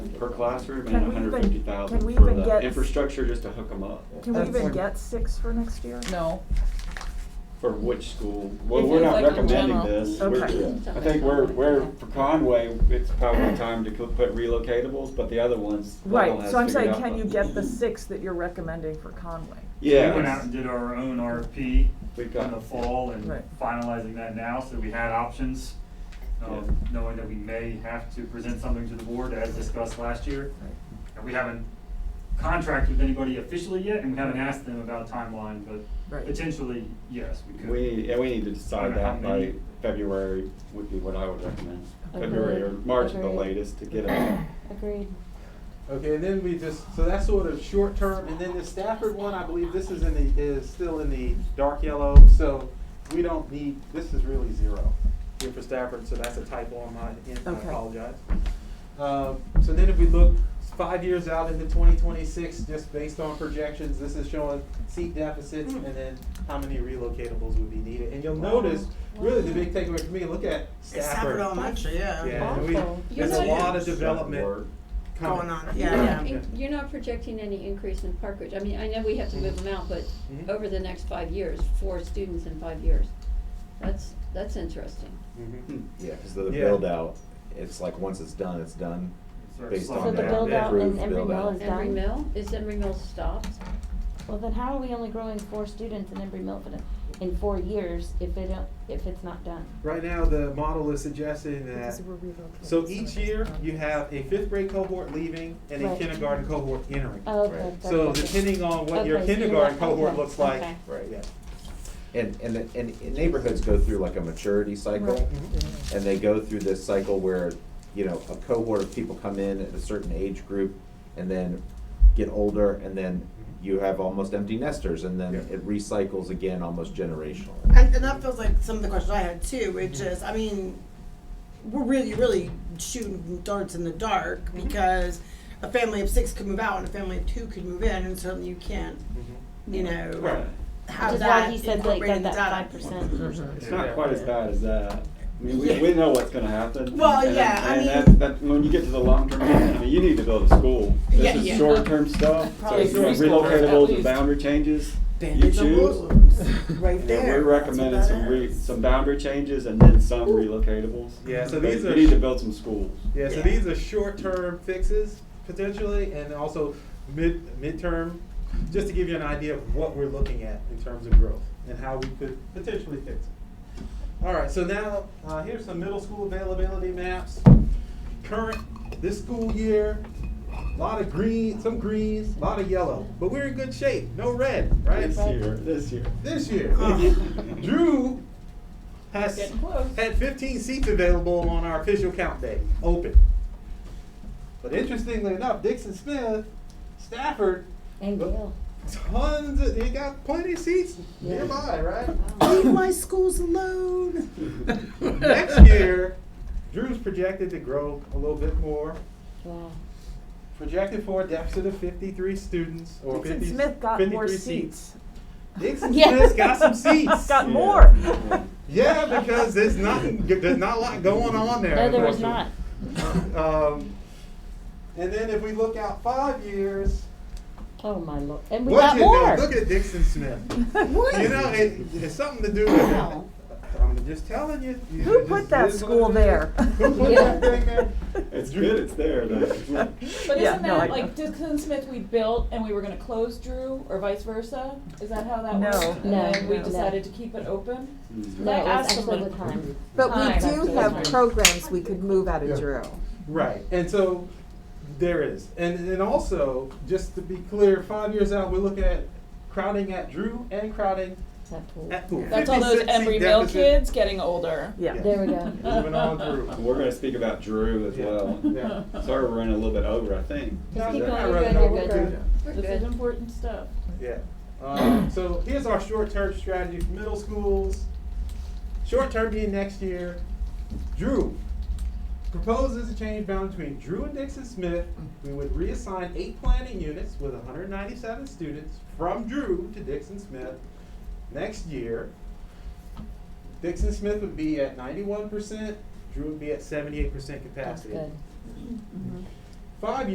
per classroom and Can we even- hundred fifty can thousand we for even the get- infrastructure just to hook them up. Can we That's even like- get six for next year? No. For which school? Well, If we're it's not like a recommending general. this. Okay. We're- I think we're, we're, for Conway, it's probably time to co- put relocatables, but the other ones, Level Right, has so I'm figured saying, out, can you but- get the six that you're recommending for Conway? Yeah. We went out and did our own RFP We've in got- the fall and Right. finalizing that now, so we had options. Um, Yeah. knowing that we may have to present something to the board as discussed last year. Right. And we haven't contracted with anybody officially yet, and we haven't asked them about timeline, but Right. potentially, yes, we could. We, yeah, we need to decide Wonder how that by many- February would be what I would recommend. Agreed. February or March at the Agreed. latest to get them. Agreed. Okay, and then we just, so that's sort of short term, and then the Stafford one, I believe this is in the, is still in the dark yellow, so we don't need, this is really zero here for Stafford, so that's a typo on my end, I Okay. apologize. Um, so then if we look five years out into twenty twenty-six, just based on projections, this is showing seat deficits and then how many relocatables would be needed, and you'll notice, really the big takeaway for me, look at It's Stafford Stafford. Elementary, yeah. Yeah, and we, Awful. You there's a know- lot of Stuff development work. coming. Going on, You're yeah, not, yeah. Yeah. you're not projecting any increase in parkage. I mean, I know we have to move them out, but Mm-hmm. Mhm. over the next five years, four students in five years. That's, that's interesting. Mhm. Yeah, because the Yeah. build out, it's like, once it's done, it's done. Sort of Based slow on down. the build out and Improved Emory Emory build Mill out. Mill is is Embry done. Mill, is Embry Mill stopped? Well, then how are we only growing four students in Embry Mill for the, in four years if it don't, if it's not done? Right now, the model is suggesting that, Because we're relocating so some each of these year, programs. you have a fifth grade cohort leaving and a Right. kindergarten cohort entering. Oh, Right. okay. So okay. depending on what your Okay, so you're kindergarten right, cohort okay, looks like. okay. Right. yeah. And, and, the- and and neighborhoods go through like a maturity cycle, oh. and they go through this cycle where, you know, a cohort of people come in at a certain age group, and then get older, and then you have almost empty nesters, and then Yeah. it recycles again, almost generationally. And, and that feels like some of the questions I had too, which Mm-hmm. is, I mean, we're really, really shooting darts in the dark Mm-hmm. because a family of six could move out and a family of two could move in, and certainly you can't, you know, Right. have Which is why that he said like incorporated got in that data. five Mm-hmm. percent. It's not quite as bad as that. I mean, we, we know what's gonna happen. Well, and- yeah, I And mean- that, that, when you get to the long-term, plan, I mean, you need to build a school. Yeah, This yeah. is short-term stuff, so Probably you know, three schools, at relocatables and least. boundary changes, you Bandits and choose. Muslims, right And there. We're That's what recommending that some re, is. some boundary changes and then some relocatables. Yeah, so But these You are- need to build some schools. Yeah, so Yeah. these are short-term fixes potentially, and also mid, midterm, just to give you an idea of what we're looking at in terms of growth and how we could potentially fix it. All right, so now, uh, here's some middle school availability maps. Current, this school year, a lot of green, some greens, a lot of yellow, but we're in good shape, no red, right? This year, this year. This year. Uh. Drew has Getting close. had 15 seats available on our official count day, open. But interestingly enough, Dixon Smith, Stafford, And Gail. tons of, they got plenty of seats Yeah. nearby, right? Leave my schools alone. Next year, Drew's projected to grow a little bit more. Wow. Projected for a deficit of 53 students or Dixon 50 Smith got more 53 seats. Dixon Yeah. Smith's got some seats. Got Yeah. more. Yeah. Yeah, because there's nothing. There's not a lot going on there. No, there was unfortunately. not. Um, and then if we look out five years, Oh, my lord. And we look got at more. look at Dixon Smith. You know, it, it's something to do with. Wow. I'm just telling you. you Who just- put that it is what school it is. there? Who put Yeah. that thing there? It's good, it's there though. But Yeah, isn't no, I- that like Dixon Smith we built and we were gonna close Drew or vice versa? Is that how that No. worked? And No, then we no. decided to keep it open? No, it I was asked actually someone- with time. But Hi. we do have programs we could move out Yeah. of Drew. Right, and so there is, and and also just to be clear, five years out, we're looking at crowding at Drew and crowding That pool. at Poole. That's all those 56 seat Embry Mill deficit. kids getting older. Yeah. There we go. Moving on through. We're gonna speak about Drew as Yeah. well. Yeah. Sorry, we're running a little bit over, I think. Just keep No, going, I you're really good, don't you're wanna do good. that. We're This is good. important stuff. Yeah. Um, so here's our short-term strategy for middle schools. Short-term being next year. Drew proposes a change bound between Drew and Dixon Smith. We would reassign eight planning units with 197 students from Drew to Dixon Smith next year. Dixon Smith would be at 91%. Drew would be at 78% capacity. That's good. Five